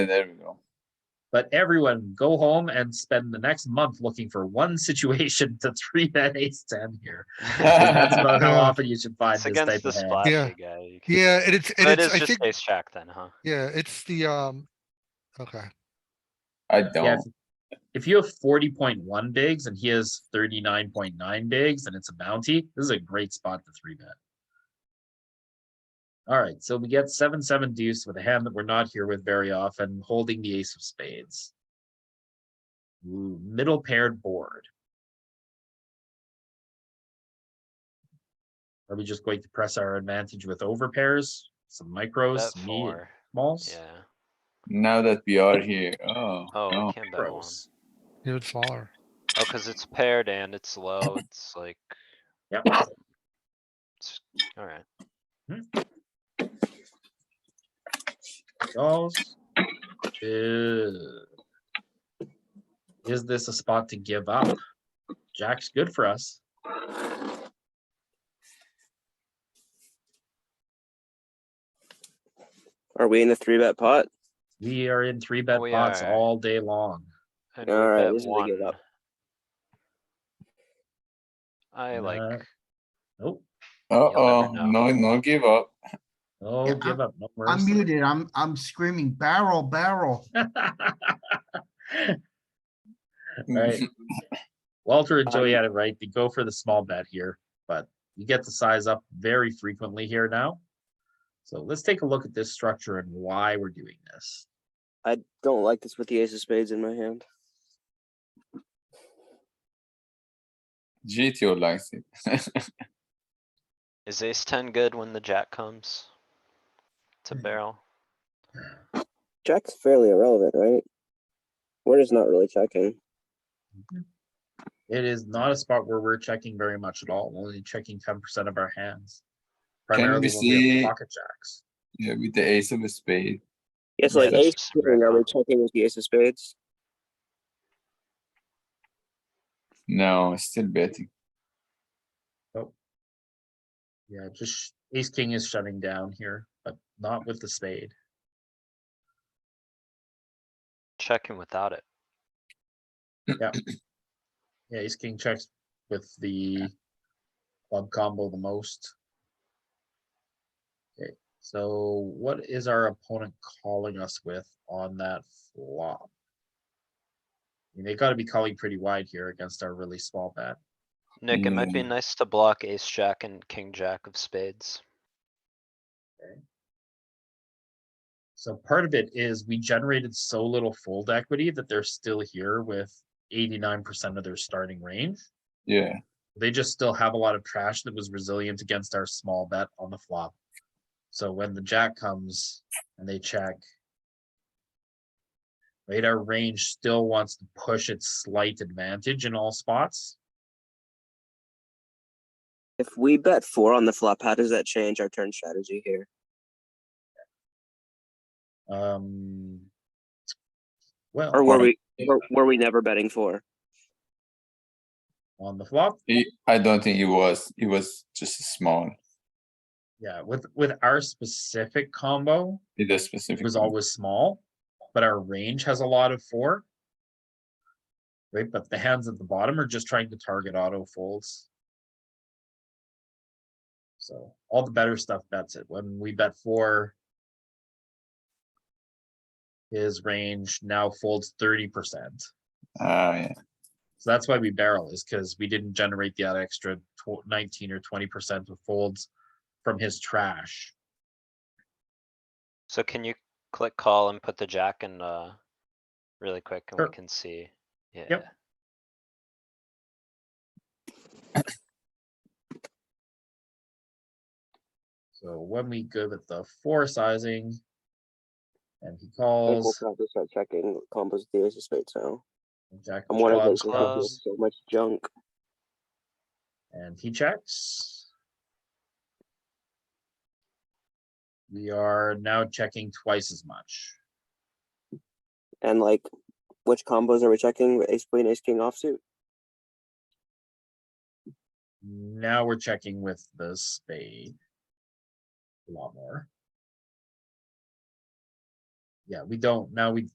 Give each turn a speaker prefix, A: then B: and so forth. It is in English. A: There we go.
B: But everyone go home and spend the next month looking for one situation to three that ace ten here. That's about how
C: Yeah.
B: often you should find
D: It's
B: this type
D: against the
B: of hand.
C: Yeah.
D: splashy guy. you can-
C: Yeah, and it's,
D: So
C: and
D: It
C: it's,
D: is
C: I
D: just
C: think,
D: ace jack then, huh?
C: yeah, it's the, um, okay,
A: I
B: Yeah,
A: don't.
B: if- If you have forty point one bigs and he has thirty nine point nine bigs and it's a bounty, this is a great spot to three bet. Alright, so we get seven, seven deuce with a hand that we're not here with very often, holding the ace of spades. Ooh, middle paired board. Are we just going to press our advantage with over pairs, some micros,
D: Bet
B: some medium
D: four,
B: smalls?
D: yeah.
A: Now that we are here, oh,
D: Oh,
A: no.
D: I can't bet one.
B: Micros.
C: even smaller.
D: Oh, cuz it's paired and it's low, it's like,
B: Yep,
D: alright.
B: Dolls. Ew. Is this a spot to give up? Jack's good for us.
E: Are we in the three bet pot?
B: We are in three bet
D: We
B: pots
D: are.
B: all day long.
D: And we
E: Alright,
D: bet
E: this is a good
D: one.
E: up.
D: I
B: Uh,
D: like,
B: Nope,
A: Uh-oh,
D: know.
A: no, no give up.
B: no
F: Yeah,
B: Oh, give up, no
F: I'm
B: mercy.
F: muted. I'm, I'm screaming barrel, barrel.
B: Right. Walter and Joey had it right. They go for the small bet here, but you get the size up very frequently here now. So let's take a look at this structure and why we're doing this.
E: I don't like this with the ace of spades in my hand.
A: GTO likes it.
D: is ace ten good when the jack comes? To barrel?
E: Jack's fairly irrelevant, right? We're just not really checking.
B: It is not a spot where we're checking very much at all, only checking ten percent of our hands.
A: Can we
B: Primarily when we
A: see-
B: have pocket jacks.
A: Yeah, with the ace of a spade.
E: Yeah, so
D: Yeah,
E: like
D: that's
E: ace
D: super
E: king, are we
D: irrelevant.
E: checking with the ace of spades?
A: No, still betting.
B: Yeah, just sh- ace king is shutting down here, but not with the spade.
D: Checking without it.
B: Yeah, ace king checks with the club combo the most. Okay, so what is our opponent calling us with on that flop? I mean, They gotta be calling pretty wide here against our really small bet.
D: Nick, it might be nice to block ace jack and king jack of spades.
B: So part of it is we generated so little fold equity that they're still here with eighty-nine percent of their starting range.
A: Yeah,
B: They just still have a lot of trash that was resilient against our small bet on the flop. So when the jack comes and they check. Right, our range still wants to push its slight advantage in all spots.
E: If we bet four on the flop, how does that change our turn strategy here?
B: Um. Well,
E: Or were
A: Alright.
E: we were, were we never betting four?
B: on the flop,
A: He- I don't think it was, it was just small,
B: yeah, with, with our specific combo,
A: in the specific.
B: was
A: one.
B: always small, but our range has a lot of four. Right, but the hands at the bottom are just trying to target auto folds. So all the better stuff bets it. When we bet four. His range now folds thirty percent.
A: Ah, yeah,
B: So that's why we barrel is because we didn't generate the extra tw- nineteen or twenty percent of folds from his trash.
D: So can you click call and put the jack in, uh, really quick and we
B: Sure.
D: can see? Yeah.
B: So when we go with the four sizing. And he
E: I think we'll
B: calls.
E: probably start checking combos with the ace of spades now.
B: Jack
E: I'm
B: of
E: one of
B: clubs
E: those
D: clubs.
E: so much junk.
B: and he checks. We are now checking twice as much.
E: And like which combos are we checking? Ace queen, ace king offsuit?
B: Now we're checking with the spade. A lot more. yeah, we don't, now we